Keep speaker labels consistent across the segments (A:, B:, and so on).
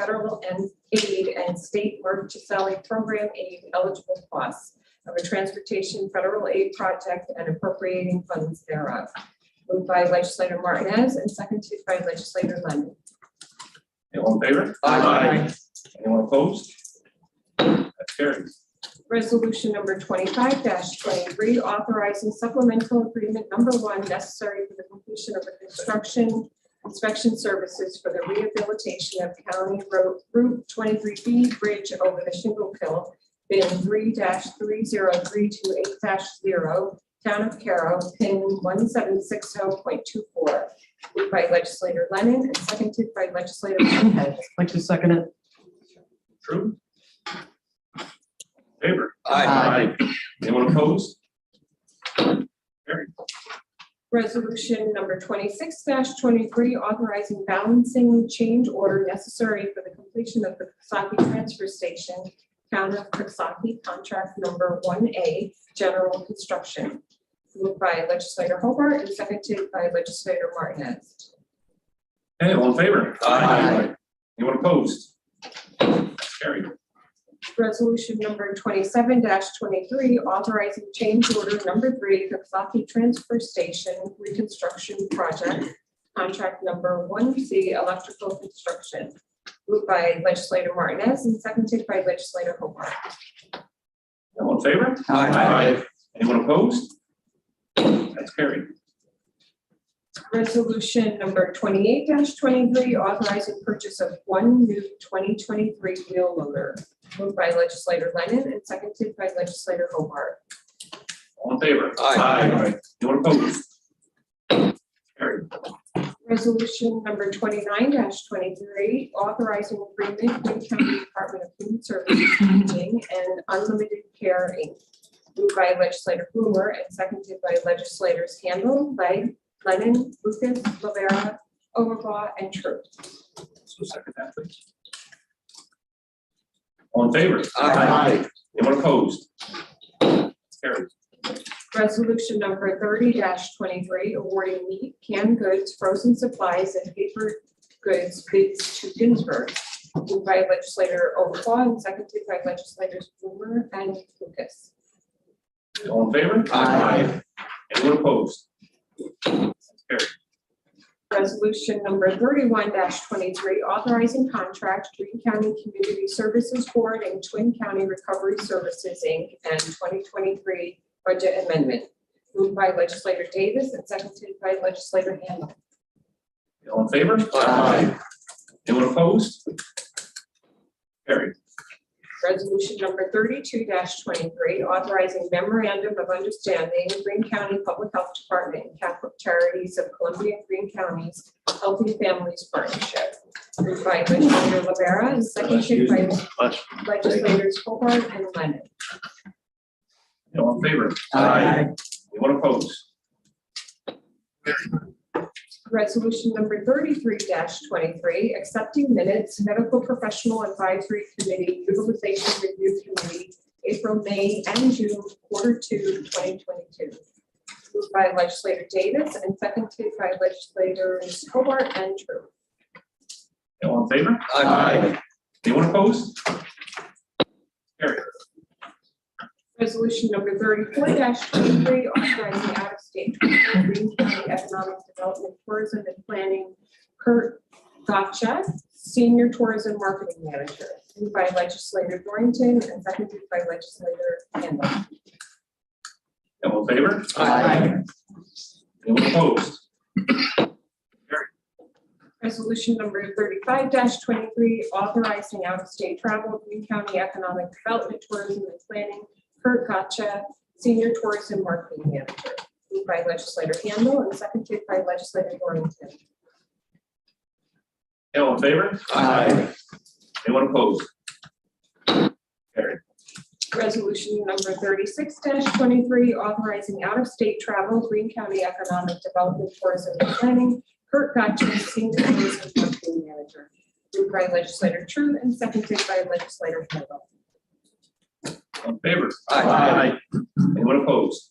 A: federal and aid and state emergency salary program aid eligible costs of a transportation federal aid project and appropriating funds thereof. Moved by legislator Martinez and seconded by legislator Lemon.
B: Anyone in favor? Anyone opposed? That carries.
A: Resolution number twenty-five twenty-three, authorizing supplemental agreement number one necessary for the completion of the construction inspection services for the rehabilitation of County Road Route twenty-three B Bridge over the Shingle Hill, bin three three zero three two eight zero, Town of Carroll, pin one seven six zero point two four. Moved by legislator Lennon and seconded by legislator Martinez.
C: Like to second it?
B: True? Favor?
C: Aye.
B: Anyone opposed? Carry.
A: Resolution number twenty-six twenty-three, authorizing balancing change order necessary for the completion of the Coxsackie Transfer Station, Town of Coxsackie, contract number one A, general construction. Moved by legislator Hobart and seconded by legislator Martinez.
B: Hey, all in favor?
C: Aye.
B: Anyone opposed? Carry.
A: Resolution number twenty-seven twenty-three, authorizing change order number three, Coxsackie Transfer Station Reconstruction Project, contract number one C, electrical construction, moved by legislator Martinez and seconded by legislator Hobart.
B: All in favor? Anyone opposed? That's carried.
A: Resolution number twenty-eight twenty-three, authorizing purchase of one new twenty twenty-three wheel loader, moved by legislator Lennon and seconded by legislator Hobart.
B: All in favor?
D: Aye.
B: Anyone opposed? Carry.
A: Resolution number twenty-nine twenty-three, authorizing agreement with County Department of Human Services Aging and Unlimited Care Inc. Moved by legislator Boomer and seconded by legislators Handel, Leg, Lennon, Lucas, Rivera, Overbaugh, and Truitt.
B: So second that, please. All in favor? Anyone opposed? Carry.
A: Resolution number thirty twenty-three, awarding meat, canned goods, frozen supplies, and paper goods bids to Ginsburg. Moved by legislator Overbaugh and seconded by legislators Boomer and Lucas.
B: All in favor?
D: Aye.
B: Anyone opposed? Carry.
A: Resolution number thirty-one twenty-three, authorizing contract Green County Community Services Board and Twin County Recovery Services, Inc., and twenty twenty-three budget amendment. Moved by legislator Davis and seconded by legislator Handle.
B: All in favor?
D: Aye.
B: Anyone opposed? Carry.
A: Resolution number thirty-two twenty-three, authorizing memorandum of understanding, Green County Public Health Department and Catholic Charities of Columbia and Green Counties Healthy Families Partnership. Moved by legislator Rivera and seconded by legislators Hobart and Lennon.
B: All in favor? Anyone opposed?
A: Resolution number thirty-three twenty-three, accepting minutes, medical professional advisory committee, utilization review committee, April, May, and June, quarter two, twenty twenty-two. Moved by legislator Davis and seconded by legislators Hobart and True.
B: All in favor? Anyone opposed? Carry.
A: Resolution number thirty-four twenty-three, authorizing out-of-state travel, Green County Economic Development Tourism and Planning, Kurt Gotcha, Senior Tourism Marketing Manager, moved by legislator Dorrington and seconded by legislator Handel.
B: All in favor?
D: Aye.
B: Anyone opposed?
A: Resolution number thirty-five twenty-three, authorizing out-of-state travel, Green County Economic Development Tourism and Planning, Kurt Gotcha, Senior Tourism Marketing Manager, moved by legislator Handel and seconded by legislator Dorrington.
B: All in favor? Anyone opposed? Carry.
A: Resolution number thirty-six twenty-three, authorizing out-of-state travel, Green County Economic Development Tourism and Planning, Kurt Gotcha, Senior Tourism Marketing Manager. Moved by legislator True and seconded by legislator Handle.
B: All in favor?
D: Aye.
B: Anyone opposed?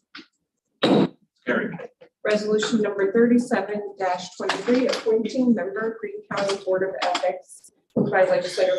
B: Carry.
A: Resolution number thirty-seven twenty-three, appointing member Green County Board of Ethics, Moved by legislator